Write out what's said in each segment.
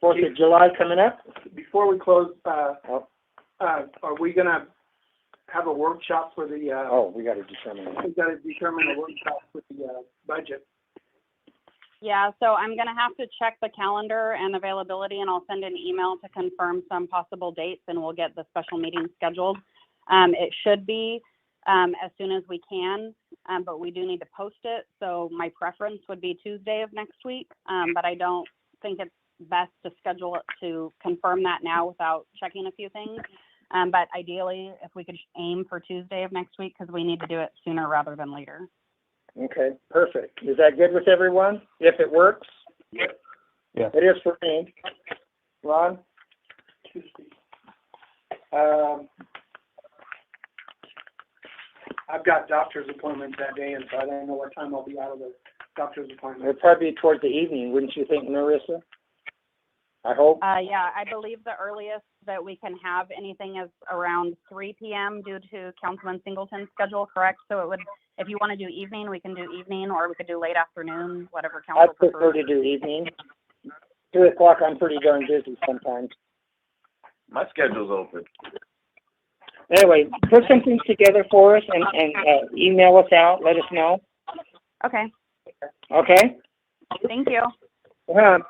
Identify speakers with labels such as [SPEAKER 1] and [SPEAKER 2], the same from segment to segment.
[SPEAKER 1] Fourth of July coming up?
[SPEAKER 2] Before we close, uh,
[SPEAKER 1] Oh.
[SPEAKER 2] uh, are we gonna have a workshop for the, uh,
[SPEAKER 1] Oh, we gotta determine that.
[SPEAKER 2] we gotta determine a workshop for the, uh, budget?
[SPEAKER 3] Yeah, so I'm gonna have to check the calendar and availability, and I'll send an email to confirm some possible dates, and we'll get the special meeting scheduled. Um, it should be, um, as soon as we can, um, but we do need to post it, so my preference would be Tuesday of next week. Um, but I don't think it's best to schedule it to confirm that now without checking a few things. Um, but ideally, if we could aim for Tuesday of next week, because we need to do it sooner rather than later.
[SPEAKER 1] Okay, perfect. Is that good with everyone? If it works?
[SPEAKER 4] Yes.
[SPEAKER 1] It is for me. Ron?
[SPEAKER 2] Um, I've got doctor's appointments that day, and so I don't know what time I'll be out of the doctor's appointment.
[SPEAKER 1] It'd probably be towards the evening, wouldn't you think, Marissa? I hope.
[SPEAKER 3] Uh, yeah, I believe the earliest that we can have anything is around three PM due to Councilman Singleton's schedule, correct? So it would, if you want to do evening, we can do evening, or we could do late afternoon, whatever
[SPEAKER 1] I
[SPEAKER 3] council
[SPEAKER 1] prefer
[SPEAKER 3] prefers.
[SPEAKER 1] to do evening. Two o'clock, I'm pretty darn busy sometimes.
[SPEAKER 5] My schedule's open.
[SPEAKER 1] Anyway, put some things together for us and, and, uh, email us out, let us know,
[SPEAKER 3] Okay,
[SPEAKER 1] okay?
[SPEAKER 3] thank you.
[SPEAKER 1] Um,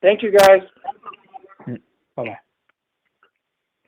[SPEAKER 1] Thank you, guys.
[SPEAKER 4] Bye-bye.